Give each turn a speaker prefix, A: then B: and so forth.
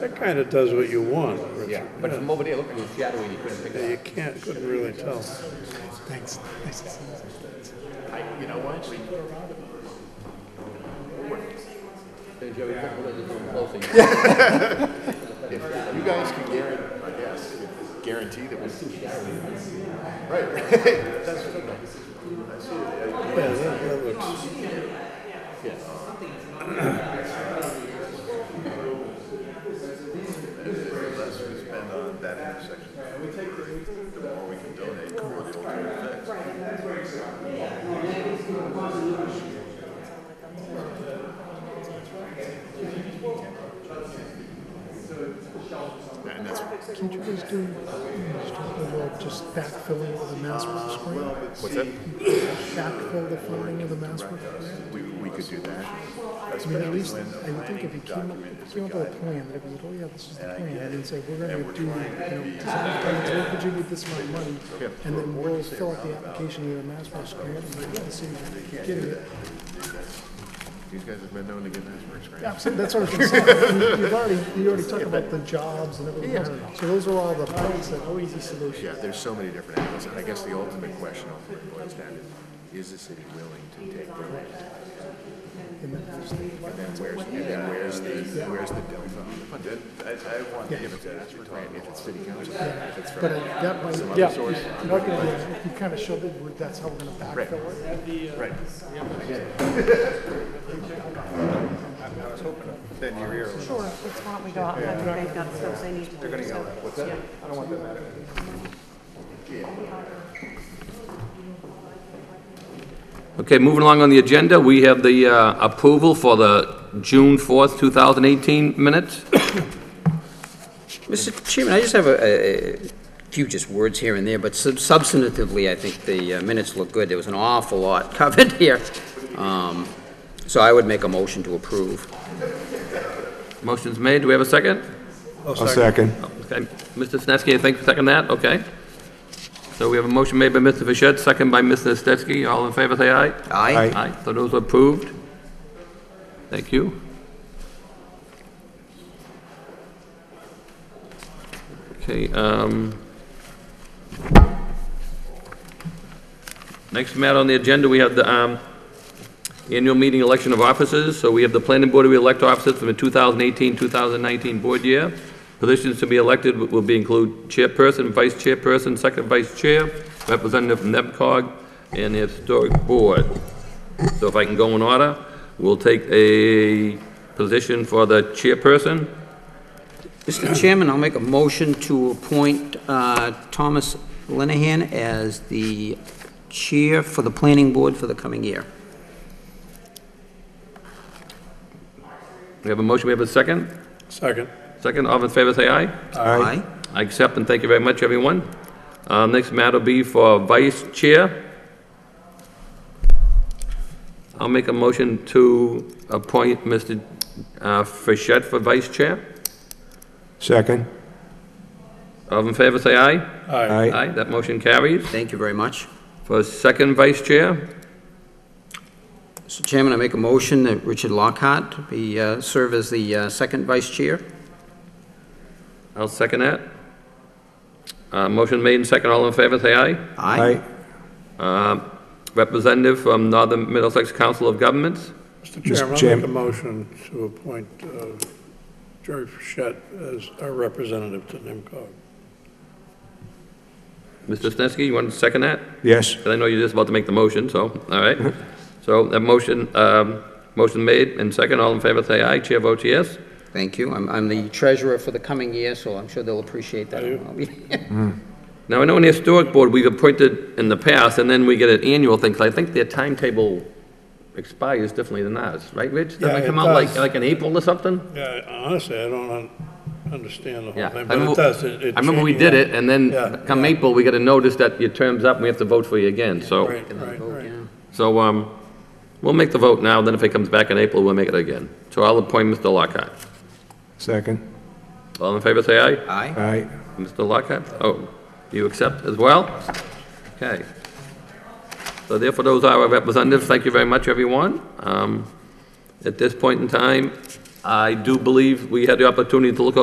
A: That kind of does what you want, Richard.
B: Yeah, but from over there, looking, it was shadowy, you couldn't pick
A: Yeah,
B: it
A: You can't, couldn't really tell.
C: Thanks. Nice to see you.
D: I, you know what? We put around it.
B: up. Hey, Joey, look, look, it's a little closer.
D: If you guys can guarantee, I guess, guarantee that we. Right.
A: Yeah, that, that looks,
E: less we spend on uh, that intersection, the more we can donate for the alternative fix.
D: And that's,
C: Can't you guys do a little just backfilling of the Massworth Square?
D: what's that?
C: Backfill the funding of the Massworth Square?
D: We, we could do that.
C: I mean, at least, I would think if you came up, if you came up with a plan, that it was, oh yeah, this is the plan, and then say, we're gonna do, you know, design plans, what would you with this amount of money? And then we'll fill out the application with a Massworth Square, and we'll see if you're getting it.
D: These guys have been known to get Asperger's, right?
C: Yeah, so that's what I was gonna say. You- You've already, you already talked about the jobs and everything else, so those are all the points that, oh, easy solution.
D: Yeah, there's so many different angles, and I guess the ultimate question ultimately boils down to, is the city willing to take the risk?
C: And then there's the-
D: And then where's, and then where's the, where's the delta? on the budget?
E: I, I want to give it to
D: Right, If it's city council, if it's
C: But
D: from,
C: I- that might,
D: other
C: yeah,
D: source.
C: you- you're not gonna, if you kind of shove it, we're- that's how we're gonna backfill it.
D: right.
E: Then your ear.
F: Sure, it's what we got, I think they've got stuff they need to do. They're gonna yell at, what's that? I don't want that matter.
B: Okay, moving along on the agenda, we have the uh, approval for the June 4th, 2018 minutes.
G: Mr. Chairman, I just have a, a few just words here and there, but sub- substantively, I think the uh, minutes look good. There was an awful lot covered here. Um, So I would make a motion to approve.
B: Motion's made, do we have a second?
H: A second.
B: Okay, Mr. Snetsky, I think, second that, okay. So we have a motion made by Mr. Fischett, second by Mr. Snetsky, all in favor, say aye.
G: Aye?
H: Aye.
B: Aye, so those are approved. Thank you. Okay, um... Next matter on the agenda, we have the, um, annual meeting election of officers. So we have the planning board, we elect officers from the 2018, 2019 board year. Positions to be elected will be include chairperson, vice chairperson, second vice chair, representative from NEPCOG, and the historic board. So if I can go in order, we'll take a position for the chairperson.
G: Mr. Chairman, I'll make a motion to appoint uh, Thomas Lenahan as the chair for the planning board for the coming year.
B: We have a motion, we have a second.
A: second.
B: Second, all in favor, say aye.
G: Aye?
B: I accept and thank you very much, everyone. Uh, Next matter will be for vice chair. I'll make a motion to appoint Mr. uh, Frichette for vice chair.
H: Second.
B: All in favor, say aye.
A: Aye.
B: Aye, that motion carries.
G: Thank you very much.
B: For second vice chair,
G: Mr. Chairman, I make a motion that Richard Lockhart be, uh, serve as the uh, second vice chair.
B: I'll second that. Uh, Motion made and second, all in favor, say aye.
G: Aye?
B: Um, Representative from Northern Middlesex Council of Governments.
A: Mr. Chairman, I'll
H: Chairman.
A: make a motion to appoint uh, Jerry Fischett as our representative to NIMCOG.
B: Mr. Snetsky, you want to second that?
H: Yes.
B: 'Cause I know you're just about to make the motion, so, all right. So that motion, um, motion made and second, all in favor, say aye. Chair votes yes.
G: Thank you. I'm, I'm the treasurer for the coming year, so I'm sure they'll appreciate that. I'll be-
B: Now, I know in the Historic Board, we've appointed in the past, and then we get an annual thing, 'cause I think their timetable expires differently than ours, right, Rich? Doesn't
A: Yeah,
B: it come
A: it
B: out like,
A: does.
B: like in April or something?
A: Yeah, honestly, I don't un- understand the
B: Yeah.
A: whole thing,
B: I
A: but
B: remember-
A: it does. it- it
B: I remember we
A: changes.
B: did it, and
A: Yeah,
B: then come April, we got a notice that your term's up, and we have to vote for you again, so.
A: Right, right, right.
B: So, um, we'll make the vote now, then if it comes back in April, we'll make it again. So I'll appoint Mr. Lockhart.
H: Second.
B: All in favor, say aye.
G: Aye?
H: Aye.
B: Mr. Lockhart, oh, you accept as well? Okay. So therefore, those are our representatives. Thank you very much, everyone. Um, at this point in time, I do believe we had the opportunity to look